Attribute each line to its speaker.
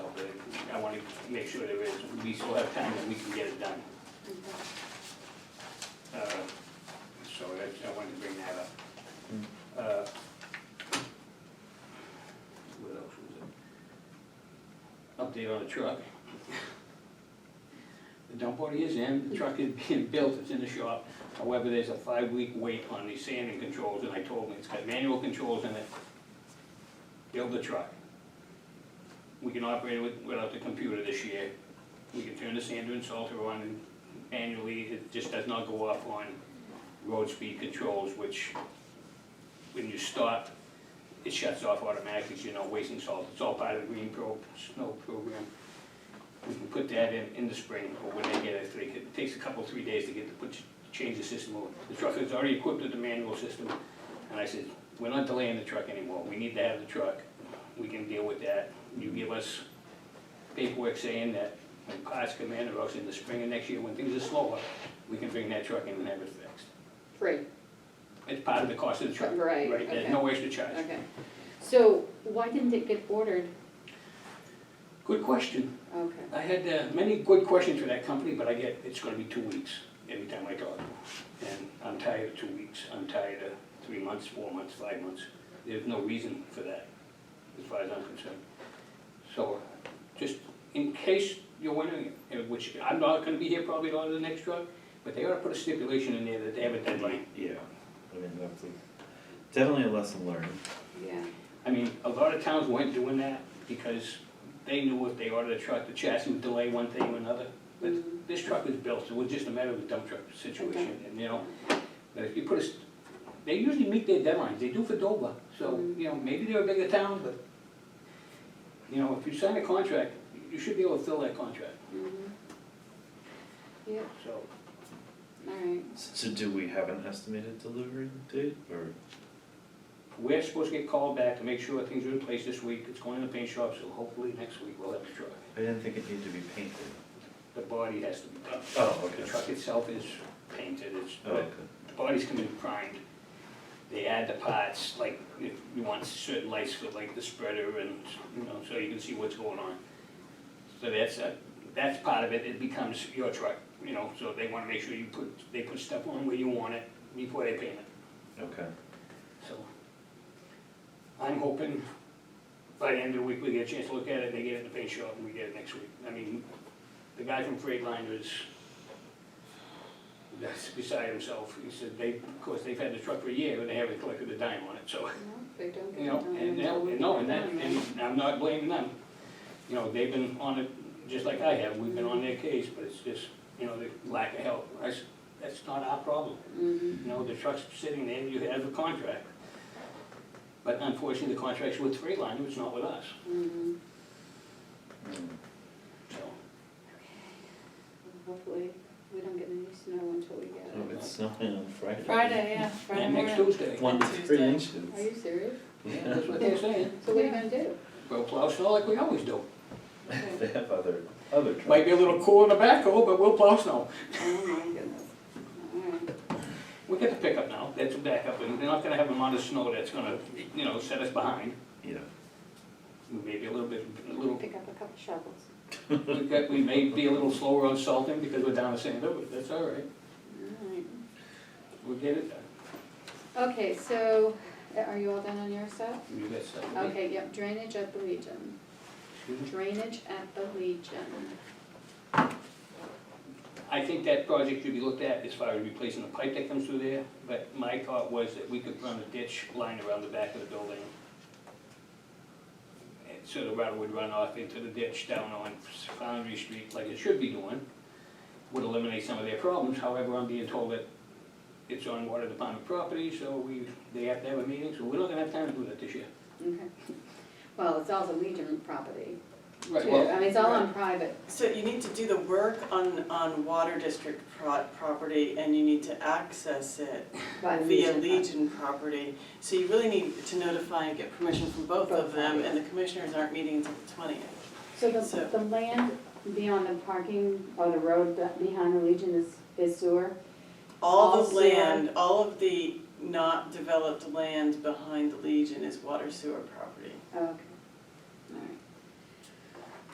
Speaker 1: make sure there is, we still have time and we can get it done. Uh, So I, I wanted to bring that up. Uh, What else was it? Update on the truck. The dump body is in, the truck is being built, it's in the shop. However, there's a five-week wait on the sanding controls, and I told him it's got manual controls in it. Build the truck. We can operate it with- without the computer this year. We can turn the sander and salter on manually, it just does not go off on road speed controls, which when you stop, it shuts off automatically, so you're not wasting salt. It's all part of the green pro, snow program. We can put that in, in the spring, or when they get it, they could, it takes a couple, three days to get to put, change the system over. The truck is already equipped with the manual system, and I said, we're not delaying the truck anymore, we need to have the truck, we can deal with that. You give us paperwork saying that when cars come in, or else in the spring of next year, when things are slower, we can bring that truck in and have it fixed.
Speaker 2: Free,
Speaker 1: It's part of the cost of the truck.
Speaker 2: Right,
Speaker 1: There's
Speaker 2: okay.
Speaker 1: no extra charge.
Speaker 2: okay. So why didn't it get ordered?
Speaker 1: Good question.
Speaker 2: Okay,
Speaker 1: I had uh, many good questions for that company, but I get, it's gonna be two weeks every time I talk. And I'm tired of two weeks, I'm tired of three months, four months, five months. There's no reason for that, as far as I'm concerned. So, uh, just in case you're wondering, uh, which I'm not gonna be here probably a lot of the next truck, but they ought to put a stipulation in there that they have a deadline.
Speaker 3: Yeah, I mean, that's a, definitely a lesson learned.
Speaker 2: yeah,
Speaker 1: I mean, a lot of towns weren't doing that because they knew if they ordered a truck, the chassis would delay one thing or another. But
Speaker 2: Mm.
Speaker 1: this truck was built, so it was just a matter of a dump truck situation, and you know, but if you put a, st- they usually meet their deadlines, they do for Dover, so,
Speaker 2: Mm.
Speaker 1: you know, maybe they're a bigger town, but, you know, if you sign a contract, you should be able to fill that contract,
Speaker 2: mhm. Yeah,
Speaker 1: so.
Speaker 2: all right,
Speaker 3: So do we have an estimated delivery date or?
Speaker 1: We're supposed to get called back to make sure things are in place this week, it's going in the paint shop, so hopefully next week we'll have the truck.
Speaker 3: I didn't think it needed to be painted.
Speaker 1: The body has to be done.
Speaker 3: Oh,
Speaker 1: The truck itself is painted, it's,
Speaker 3: Oh, okay.
Speaker 1: the body's come in primed. They add the parts, like, if you want certain lights for like the spreader and, you know, so you can see what's going on. So that's, a- that's part of it, it becomes your truck, you know, so they wanna make sure you put, they put stuff on where you want it before they paint it,
Speaker 3: Okay,
Speaker 1: so. I'm hoping by the end of the week, we get a chance to look at it, they get it in the paint shop, and we get it next week. I mean, the guy from Freightliner is, that's beside himself, he said they, of course, they've had the truck for a year, and they haven't collected a dime on it, so,
Speaker 2: no, they don't get
Speaker 1: you know,
Speaker 2: it done
Speaker 1: and,
Speaker 2: until
Speaker 1: they'll-
Speaker 2: we
Speaker 1: and no,
Speaker 2: get
Speaker 1: and that,
Speaker 2: it done,
Speaker 1: and
Speaker 2: right?
Speaker 1: I'm not blaming them. You know, they've been on it, just like I have, we've been on their case, but it's just, you know, the lack of help, that's, that's not our problem.
Speaker 2: Mhm.
Speaker 1: You know, the truck's sitting there, you have a contract. But unfortunately, the contract's with Freightliner, it's not with us,
Speaker 2: Mhm.
Speaker 3: Mm,
Speaker 1: so.
Speaker 2: Hopefully, we don't get any snow until we get
Speaker 3: oh,
Speaker 2: it.
Speaker 3: it's snowing on Friday.
Speaker 4: Friday, yeah, Friday
Speaker 1: And next
Speaker 4: morning.
Speaker 1: Tuesday,
Speaker 3: One to three
Speaker 4: Tuesday.
Speaker 3: inches.
Speaker 2: Are you serious?
Speaker 1: yeah, that's what they're saying,
Speaker 2: So what are you gonna do?
Speaker 1: we'll plow snow like we always do.
Speaker 3: They have other, other trucks.
Speaker 1: Might be a little cool in the backhoe, but we'll plow snow.
Speaker 2: Oh my goodness. All right,
Speaker 1: We got the pickup now, that's a backup, and they're not gonna have a amount of snow that's gonna, you know, set us behind.
Speaker 3: Yeah,
Speaker 1: Maybe a little bit, a
Speaker 2: we'll
Speaker 1: little,
Speaker 2: pick up a couple shovels.
Speaker 1: we got- we may be a little slower on salting because we're down to Sandover, but that's all right,
Speaker 2: All right.
Speaker 1: we'll get it done.
Speaker 2: Okay, so uh, are you all done on your stuff?
Speaker 1: You got something?
Speaker 2: Okay, yep, drainage at the Legion.
Speaker 1: Excuse me?
Speaker 2: Drainage at the Legion.
Speaker 1: I think that project should be looked at as far as replacing the pipe that comes through there, but my thought was that we could run a ditch line around the back of the building. And so the water would run off into the ditch down on Foundry Street like it should be doing. Would eliminate some of their problems, however, I'm being told that it's on water department property, so we, they have to have a meeting, so we're not gonna have time to do that this year.
Speaker 2: Okay. Well, it's all the Legion property
Speaker 1: Right.
Speaker 2: too. I mean, it's all on private.
Speaker 4: So you need to do the work on, on Water District pro- property and you need to access it
Speaker 2: by the
Speaker 4: via
Speaker 2: Legion.
Speaker 4: Legion property. So you really need to notify and get permission from both
Speaker 2: Both
Speaker 4: of them and
Speaker 2: parties.
Speaker 4: the commissioners aren't meeting until the twentieth.
Speaker 2: So the,
Speaker 4: So-
Speaker 2: the land beyond the parking or the road be- behind the Legion is, is sewer?
Speaker 4: All the
Speaker 2: Also-
Speaker 4: land, all of the not developed land behind the Legion is water sewer property.
Speaker 2: Oh, Okay.